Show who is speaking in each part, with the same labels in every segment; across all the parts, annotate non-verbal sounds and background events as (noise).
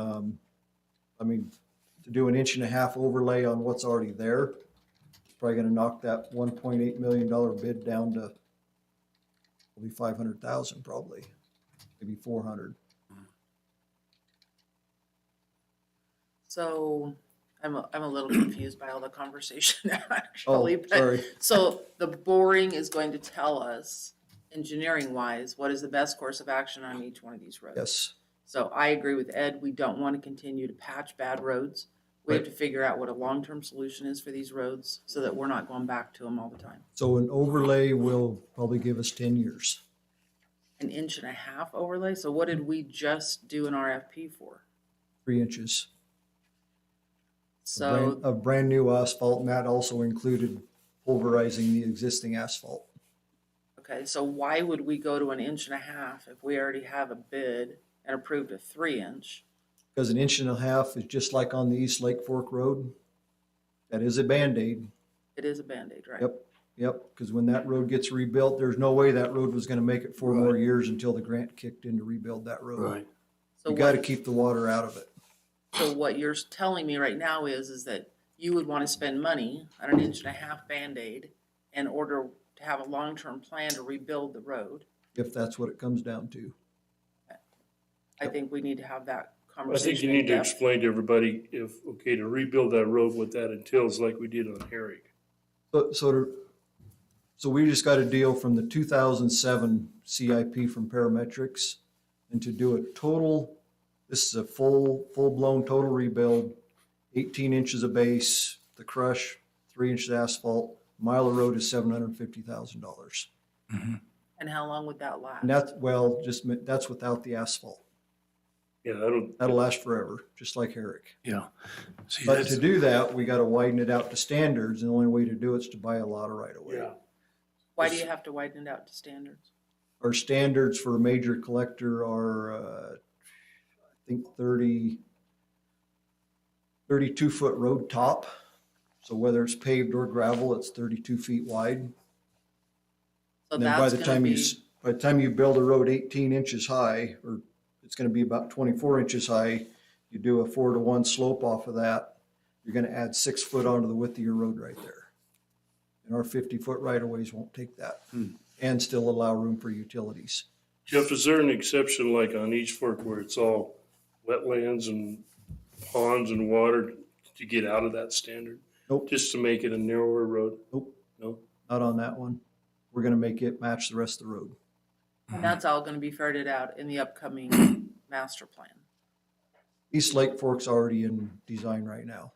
Speaker 1: Um, I mean, to do an inch and a half overlay on what's already there, it's probably gonna knock that one point eight million dollar bid down to it'll be five hundred thousand probably, maybe four hundred.
Speaker 2: So I'm, a- I'm
Speaker 1: (clears throat)
Speaker 2: a little confused by all the conversation (laughs)
Speaker 1: Oh,
Speaker 2: actually. but-
Speaker 1: sorry.
Speaker 2: So the boring is going to tell us, engineering wise, what is the best course of action on each one of these roads.
Speaker 1: Yes,
Speaker 2: So I agree with Ed, we don't want to continue to patch bad roads. We have to figure out what a long-term solution is for these roads so that we're not going back to them all the time.
Speaker 1: so an overlay will probably give us ten years.
Speaker 2: An inch and a half overlay, so what did we just do an RFP for?
Speaker 1: three inches. of brand-
Speaker 2: So
Speaker 1: Of brand-new asphalt, and that also included pulverizing the existing asphalt.
Speaker 2: Okay, so why would we go to an inch and a half if we already have a bid and approved a three inch?
Speaker 1: Because an inch and a half is just like on the East Lake Fork Road. That is a Band-Aid.
Speaker 2: It is a Band-Aid, right?
Speaker 1: Yep, yep, because when that road gets rebuilt, there's no way that road was gonna make it four more
Speaker 3: Right.
Speaker 1: years until the grant kicked in to rebuild that road.
Speaker 3: Right,
Speaker 2: So
Speaker 1: You gotta
Speaker 2: what-
Speaker 1: keep the water out of it.
Speaker 2: So what you're telling me right now is, is that you would want to spend money on an inch and a half Band-Aid in order to have a long-term plan to rebuild the road.
Speaker 1: If that's what it comes down to.
Speaker 2: I think we need to have that
Speaker 4: I think
Speaker 2: conversation.
Speaker 4: you
Speaker 2: in
Speaker 4: need to
Speaker 2: depth.
Speaker 4: explain to everybody if, okay, to rebuild that road, what that entails, like we did on Herrick.
Speaker 1: But so, to- so we just got a deal from the two thousand seven CIP from Parametrics. And to do a total, this is a full, full-blown total rebuild, eighteen inches of base, the crush, three inches of asphalt, mile of road is seven hundred and fifty thousand dollars.
Speaker 2: And how long would that last?
Speaker 1: And that's, well, just, mi- that's without the asphalt.
Speaker 4: Yeah, I don't,
Speaker 1: That'll last forever, just like Herrick.
Speaker 3: yeah. See,
Speaker 1: But
Speaker 3: that's,
Speaker 1: to do that, we gotta widen it out to standards, and the only way to do it is to buy a lot of right of way.
Speaker 4: yeah,
Speaker 2: Why do you have to widen it out to standards?
Speaker 1: Our standards for a major collector are, uh, I think 30 32 foot road top. So whether it's paved or gravel, it's thirty-two feet wide.
Speaker 2: So
Speaker 1: And then by
Speaker 2: that's
Speaker 1: the
Speaker 2: gonna
Speaker 1: time you,
Speaker 2: be,
Speaker 1: s- by the time you build a road eighteen inches high, or it's gonna be about twenty-four inches high, you do a four to one slope off of that, you're gonna add six foot onto the width of your road right there. And our fifty-foot right-of-ways won't take that, and still allow room for utilities.
Speaker 4: Jeff, is there an exception like on East Fork where it's all wetlands and ponds and water to get out of that standard?
Speaker 1: Nope.
Speaker 4: Just to make it a narrower road?
Speaker 1: Nope.
Speaker 4: No?
Speaker 1: Not on that one. We're gonna make it match the rest of the road.
Speaker 2: and that's all gonna be ferreted out in the upcoming master plan.
Speaker 1: East Lake Fork's already in design right now.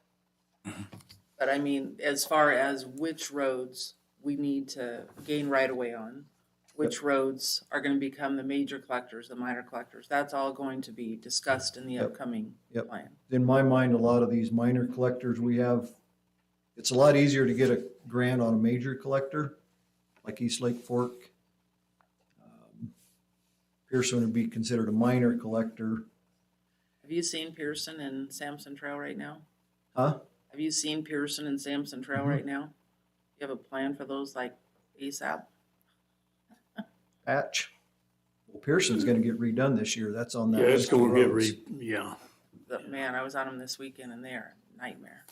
Speaker 2: But I mean, as far as which roads we need to gain right of way on, which roads are gonna become the major collectors, the minor collectors, that's all going to be discussed in the
Speaker 1: Yep.
Speaker 2: upcoming
Speaker 1: Yep.
Speaker 2: plan.
Speaker 1: in my mind, a lot of these minor collectors we have, it's a lot easier to get a grant on a major collector, like East Lake Fork. Um, Pearson would be considered a minor collector,
Speaker 2: Have you seen Pearson and Sampson Trail right now?
Speaker 1: huh?
Speaker 2: Have you seen Pearson and Sampson Trail
Speaker 1: Mm-hmm.
Speaker 2: right now? You have a plan for those like ASAP?
Speaker 1: Patch. Well, Pearson's gonna get redone this year, that's on that.
Speaker 3: yeah, it's
Speaker 1: list of
Speaker 3: gonna get
Speaker 1: roads.
Speaker 3: re, yeah.
Speaker 2: But man, I was on them this weekend and they're a nightmare.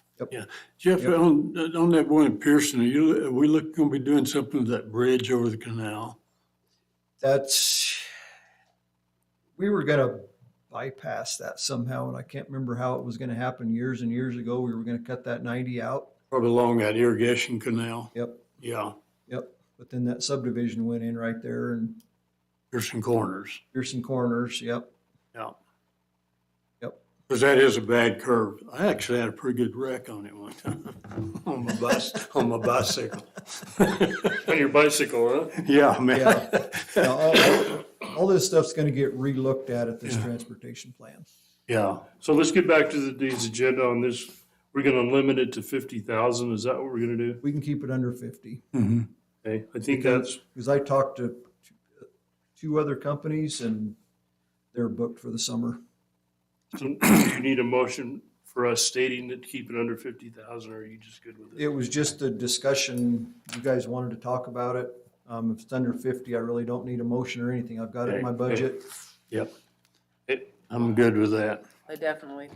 Speaker 3: Jeff,
Speaker 1: Yep.
Speaker 3: on, on that one in Pearson, are you, are we look, gonna be doing something with that bridge over the canal?
Speaker 1: That's, we were gonna bypass that somehow, and I can't remember how it was gonna happen years and years ago, we were gonna cut that ninety out.
Speaker 3: Probably along that irrigation canal,
Speaker 1: Yep,
Speaker 3: yeah,
Speaker 1: Yep, but then that subdivision went in right there and
Speaker 3: Pearson Corners,
Speaker 1: Pearson Corners, yep.
Speaker 3: yeah.
Speaker 1: Yep.
Speaker 3: Cause that is a bad curve. I actually had a pretty good wreck on it one time, (laughs) on my bus, on my bicycle.
Speaker 4: On your bicycle, huh?
Speaker 3: Yeah, man.
Speaker 1: Yeah. Now, all- All this stuff's gonna get relooked at at this transportation plan.
Speaker 3: (laughs) Yeah,
Speaker 4: So let's get back to the day's agenda on this. We're gonna limit it to fifty thousand. Is that what we're gonna do?
Speaker 1: We can keep it under fifty,
Speaker 3: hmm
Speaker 4: Okay, I think that's,
Speaker 1: because I talked to t- two other companies and they're booked for the summer.
Speaker 4: so you need a motion for us stating that keep it under fifty thousand, or are you just good with it?
Speaker 1: It was just a discussion, you guys wanted to talk about it. Um, if it's under fifty, I really don't need a motion or anything, I've got it in my
Speaker 4: Okay, okay.
Speaker 1: budget.
Speaker 3: yep. I'm good with that.
Speaker 2: I definitely